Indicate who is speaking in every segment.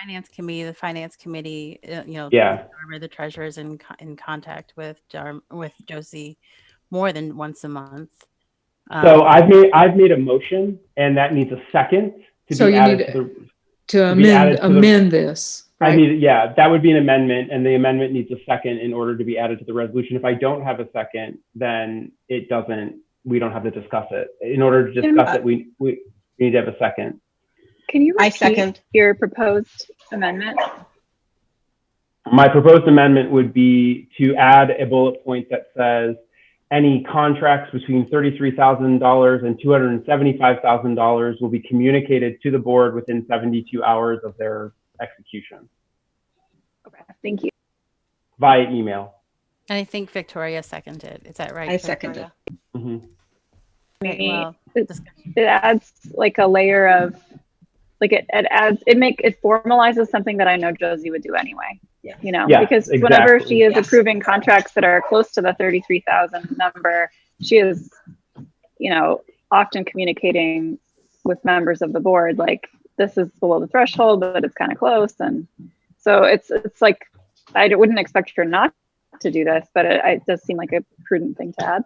Speaker 1: finance committee, the finance committee, uh, you know,
Speaker 2: Yeah.
Speaker 1: Dharma, the treasurer is in, co- in contact with, Dharm- with Josie more than once a month.
Speaker 2: So
Speaker 1: Um,
Speaker 2: I've made, I've made a motion and that needs a second to
Speaker 3: So
Speaker 2: be
Speaker 3: you
Speaker 2: added
Speaker 3: need
Speaker 2: to the,
Speaker 3: to
Speaker 2: To be added
Speaker 3: amend,
Speaker 2: to the-
Speaker 3: amend this,
Speaker 2: I
Speaker 3: right?
Speaker 2: need, yeah, that would be an amendment and the amendment needs a second in order to be added to the resolution. If I don't have a second, then it doesn't, we don't have to discuss it. In order to
Speaker 3: uh,
Speaker 2: discuss it, we, we we need to have a second.
Speaker 4: Can you
Speaker 5: I
Speaker 4: repeat
Speaker 5: second.
Speaker 4: your proposed amendment?
Speaker 2: My proposed amendment would be to add a bullet point that says any contracts between $33,000 and $275,000 will be communicated to the board within 72 hours of their execution
Speaker 4: Okay, thank you.
Speaker 2: via email.
Speaker 1: And I think Victoria seconded. Is that right?
Speaker 5: I seconded.
Speaker 2: Mhm.
Speaker 1: Victoria? Right, well,
Speaker 4: It adds like a layer of, like it, it adds, it make, it formalizes something that I know Josie would do anyway.
Speaker 5: Yeah.
Speaker 4: You know,
Speaker 2: Yes,
Speaker 4: because whenever
Speaker 2: exactly.
Speaker 4: she is
Speaker 5: Yes.
Speaker 4: approving contracts that are close to the thirty-three thousand number, she is, you know, often communicating with members of the board, like, this is below the threshold, but it's kind of close, and so it's, it's like, I wouldn't expect her not to do this, but it, it does seem like a prudent thing to add.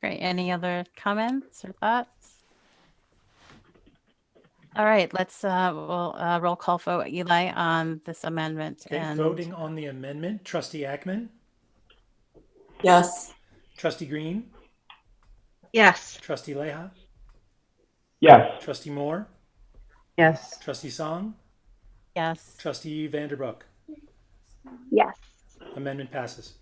Speaker 1: Great. Any other comments or thoughts? All right, let's, uh, we'll, uh, roll call vote Eli on this amendment
Speaker 6: Okay,
Speaker 1: and.
Speaker 6: voting on the amendment, trustee Ackman,
Speaker 7: Yes.
Speaker 6: trustee Green,
Speaker 5: Yes.
Speaker 6: trustee Leha,
Speaker 2: Yes.
Speaker 6: trustee Moore,
Speaker 7: Yes.
Speaker 6: trustee Song,
Speaker 1: Yes.
Speaker 6: trustee Vanderbrook.
Speaker 4: Yes.
Speaker 6: Amendment passes.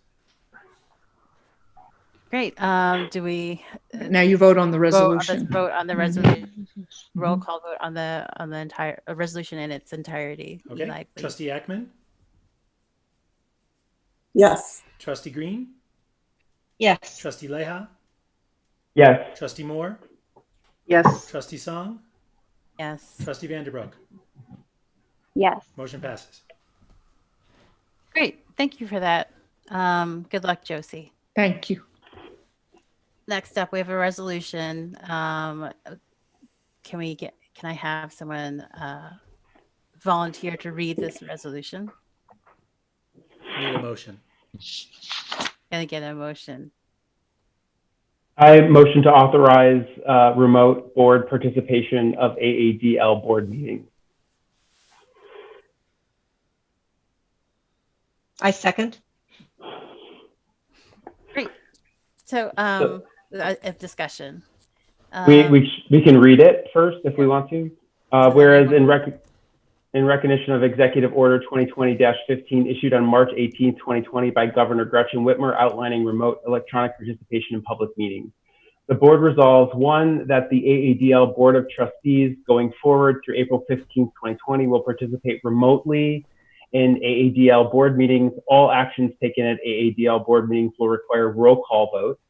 Speaker 1: Great. Um, do we
Speaker 3: Now you vote on the
Speaker 1: vote on this-
Speaker 3: resolution.
Speaker 1: vote on the
Speaker 3: Mhm.
Speaker 1: resolution? Roll call vote on the, on the entire, uh, resolution in its entirety. Eli,
Speaker 6: Okay,
Speaker 1: please.
Speaker 6: trustee Ackman,
Speaker 7: Yes.
Speaker 6: trustee Green,
Speaker 5: Yes.
Speaker 6: trustee Leha,
Speaker 2: Yes.
Speaker 6: trustee Moore,
Speaker 7: Yes.
Speaker 6: trustee Song,
Speaker 1: Yes.
Speaker 6: trustee Vanderbrook.
Speaker 4: Yes.
Speaker 6: Motion passes.
Speaker 1: Great. Thank you for that. Um, good luck, Josie.
Speaker 3: Thank you.
Speaker 1: Next up, we have a resolution. Um, can we get, can I have someone, uh, volunteer to read this resolution?
Speaker 6: Need a motion.
Speaker 1: Can I get a motion?
Speaker 2: I motion to authorize uh, remote board participation of AADL board meetings.
Speaker 5: I second.
Speaker 1: So, um, a, a discussion.
Speaker 2: We,
Speaker 1: Um,
Speaker 4: Uh,
Speaker 2: we, sh- we can read it first if we want to. Uh, Whereas in rec, in recognition of Executive Order 2020-15 issued on March 18, 2020 by Governor Gretchen Whitmer outlining remote electronic participation in public meetings. The board resolves, one, that the AADL Board of Trustees going forward through April 15, 2020 will participate remotely in AADL board meetings. All actions taken at AADL board meetings will require roll call votes.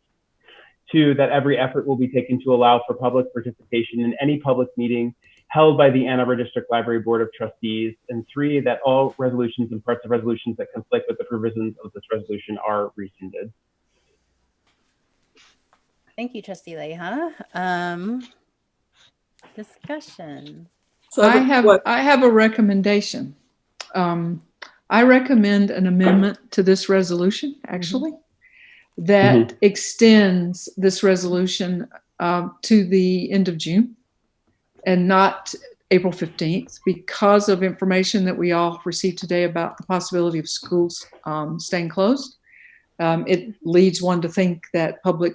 Speaker 2: Two, that every effort will be taken to allow for public participation in any public meeting held by the Ann Arbor District Library Board of Trustees. And three, that all resolutions and parts of resolutions that conflict with the provisions of this resolution are rescinded.
Speaker 1: Thank you, trustee Leha. Um, discussion.
Speaker 7: So
Speaker 3: I
Speaker 7: the-
Speaker 3: have,
Speaker 7: what-
Speaker 3: I have a recommendation. Um, I recommend an amendment to this resolution, actually,
Speaker 2: Mm-hmm.
Speaker 3: that extends this resolution um, to the end of June and not April 15th because of information that we all received today about the possibility of schools um, staying closed. Um, It leads one to think that public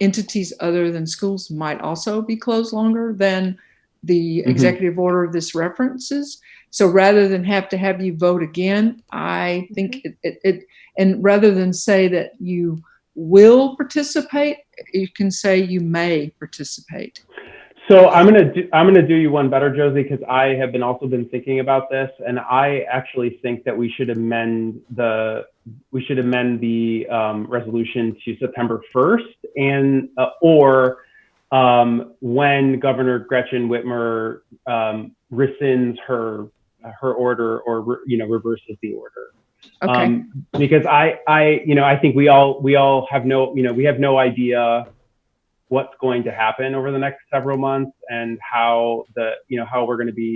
Speaker 3: entities other than schools might also be closed longer than the
Speaker 2: Mhm.
Speaker 3: executive order this references. So rather than have to have you vote again, I think it, it, it, and rather than say that you will participate, you can say you may participate.
Speaker 2: So I'm gonna do, I'm gonna do you one better, Josie, because I have been also been thinking about this, and I actually think that we should amend the we should amend the um, resolution to September 1st, and uh, or um, when Governor Gretchen Whitmer um, rescinds her her order or re- you know reverses the order.
Speaker 3: Okay.
Speaker 2: Um, because I, I, you know, I think we all, we all have no, you know, we have no idea what's going to happen over the next several months and how the, you know, how we're going to be